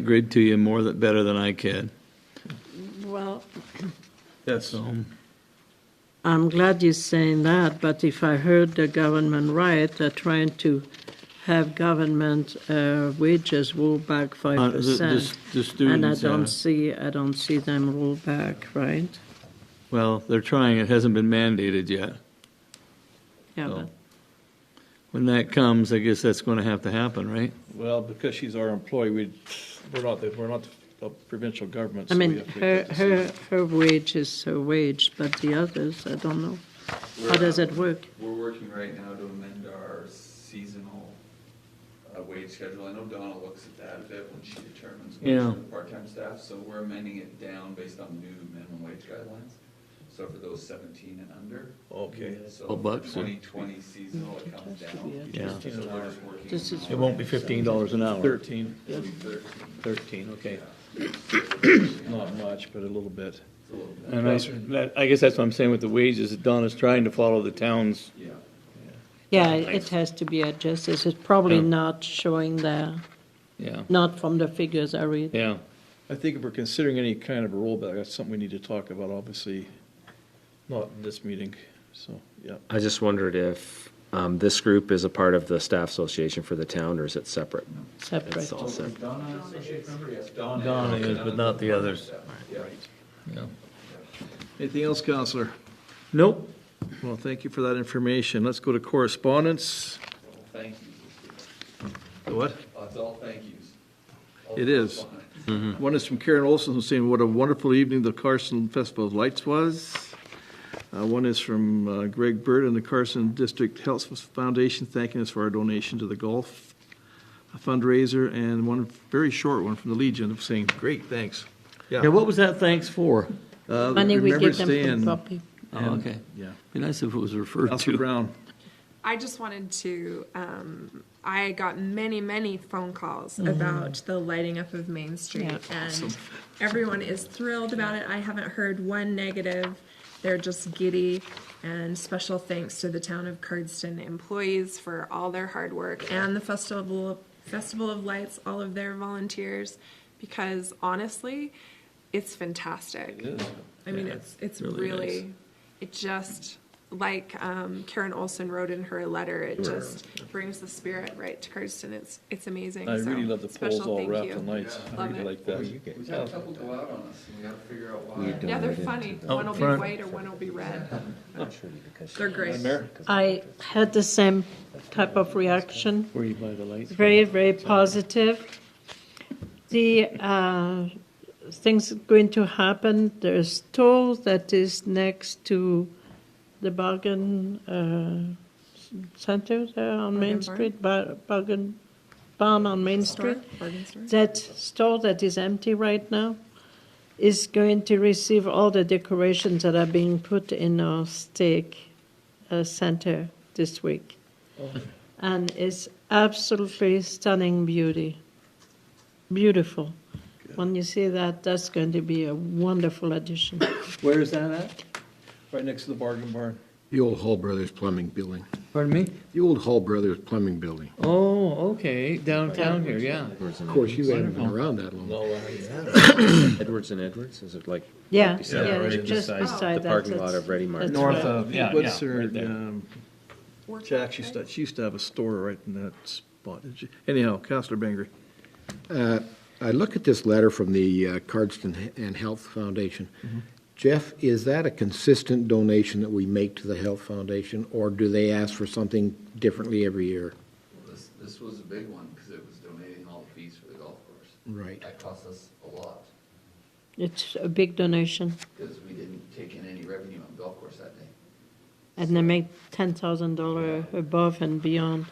Agreed to you more than, better than I can. Well, Yes. I'm glad you're saying that, but if I heard the government right, they're trying to have government uh, wages roll back Uh, five percent. uh, The And I students, don't uh, see, I don't see them roll back, right? well, they're trying, it hasn't been mandated yet. Yeah, So, but When that comes, I guess that's going to have to happen, right? Well, because she's our employee, we, we're not, the- we're not the provincial government, I so we mean, have to uh, her, make that decision. her, her wage is her wage, but the others, I don't know. How does it work? um, We're working right now to amend our seasonal uh, wage schedule. I know Donna looks at that a bit when she determines Yeah. what's for the part-time staff, so we're amending it down based on new minimum wage guidelines. So for those seventeen and under. Okay. Oh, So for bucks, yeah. twenty twenty seasonal, it comes down. Yeah. So we're just working This is- on It won't be fifteen dollars an hour. Thirteen, It'll be thirteen, Thirteen, okay. not much, but a little bit. it's a little bit, And I, that- I guess that's what I'm saying with the wages, that Donna's trying to follow the town's, yeah. Yeah, it has to be adjusted. It's probably Yeah. not showing there, yeah, not from the figures I read. yeah. I think if we're considering any kind of a rollback, that's something we need to talk about, obviously, not in this meeting, so, yeah. I just wondered if um, this group is a part of the staff association for the town, or is it separate? Separate. It's all separate. Donna, associate member, yes, Donna. Donna is, but not the others. Yeah. Anything else, Counselor? Nope, Well, thank you for that information. Let's go to correspondence. Thank you. The What? It's all thank yous. All It is. correspondence. One is from Karen Olson, who's saying what a wonderful evening the Carson Festival of Lights was. Uh, One is from uh, Greg Bird and the Carson District Health Foundation thanking us for our donation to the golf fundraiser, and one very short one from the Legion saying, great, thanks. yeah, what was that thanks for? Uh, Money we remember give them staying- for copy. Oh, okay, Yeah. be nice if it was referred Counselor to. Brown, I just wanted to. Um, I got many, many phone calls about the lighting up of Main Street, Yeah. and everyone is thrilled about it. I haven't heard one negative. They're just giddy. And special thanks to the town of Cardston employees for all their hard work and the festival Festival of Lights, all of their volunteers, because honestly, it's fantastic. I mean, it's it's really really, nice. it just like um, Karen Olson wrote in her letter. It just brings the spirit right to Cardston. It's it's amazing. I So, really love the poles special all thank wrapped you. in lights. I Love really it. like that. We've had a couple go out on us, and we gotta figure out why. Yeah, they're funny. Out One will be front. white or one will be red. They're great. I had the same type of reaction. Where you buy the lights? Very, very positive. The uh, things going to happen. The store that is next to the bargain uh, center there on Main Bargain Barn? Street, bar, bargain barn on Main Store, Street. bargain store. That store that is empty right now is going to receive all the decorations that are being put in our stake uh, center this week. Oh. And it's absolutely stunning beauty. Beautiful. When you see that, that's going to be a wonderful addition. Where is that at? Right next to the bargain barn. The old Hall Brothers Plumbing Building. Pardon me? The old Hall Brothers Plumbing Building. Oh, okay, downtown here, yeah. Edwards and Of course, you haven't been Wonderful. around that long. Edwards. Edwards and Edwards, is it like? Yeah, beside- yeah, right it's just beside The that. parking lot that's- of Ready Mart. that's North right. of, yeah, what's yeah, her, right there. um, Workshop, Jack, she used to, right? she used to have a store right in that spot. didn't she? Anyhow, Counselor Bengry. I look at this letter from the uh, Cardston and Health Foundation. Jeff, is that a consistent donation that we make to the Health Foundation, or do they ask for something differently every year? This, this was a big one, because it was donating all the fees for the golf course. Right. That cost us a lot, It's a big donation, because we didn't take in any revenue on golf course that day. and they make $10,000 above and beyond.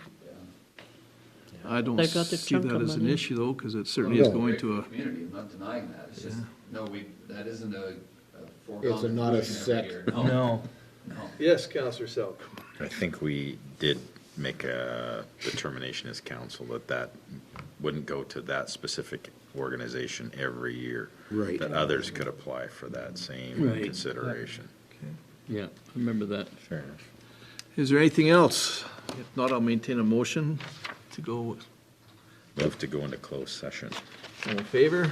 I don't They got the see chunk that of as an money. issue though, because it certainly is No. going Great to for a, the Community, I'm not denying that, it's just, no, we, that isn't a a foregone. It's not a conclusion every set. year. No. no. yes, Counselor Selk. I think we did make a determination as council that that wouldn't go to that specific organization every year. Right. That others could apply for that same Right. consideration. Yeah, I remember that. Fair enough. Is there anything else? If not, I'll maintain a motion to go, Move to go into closed session. All in favor?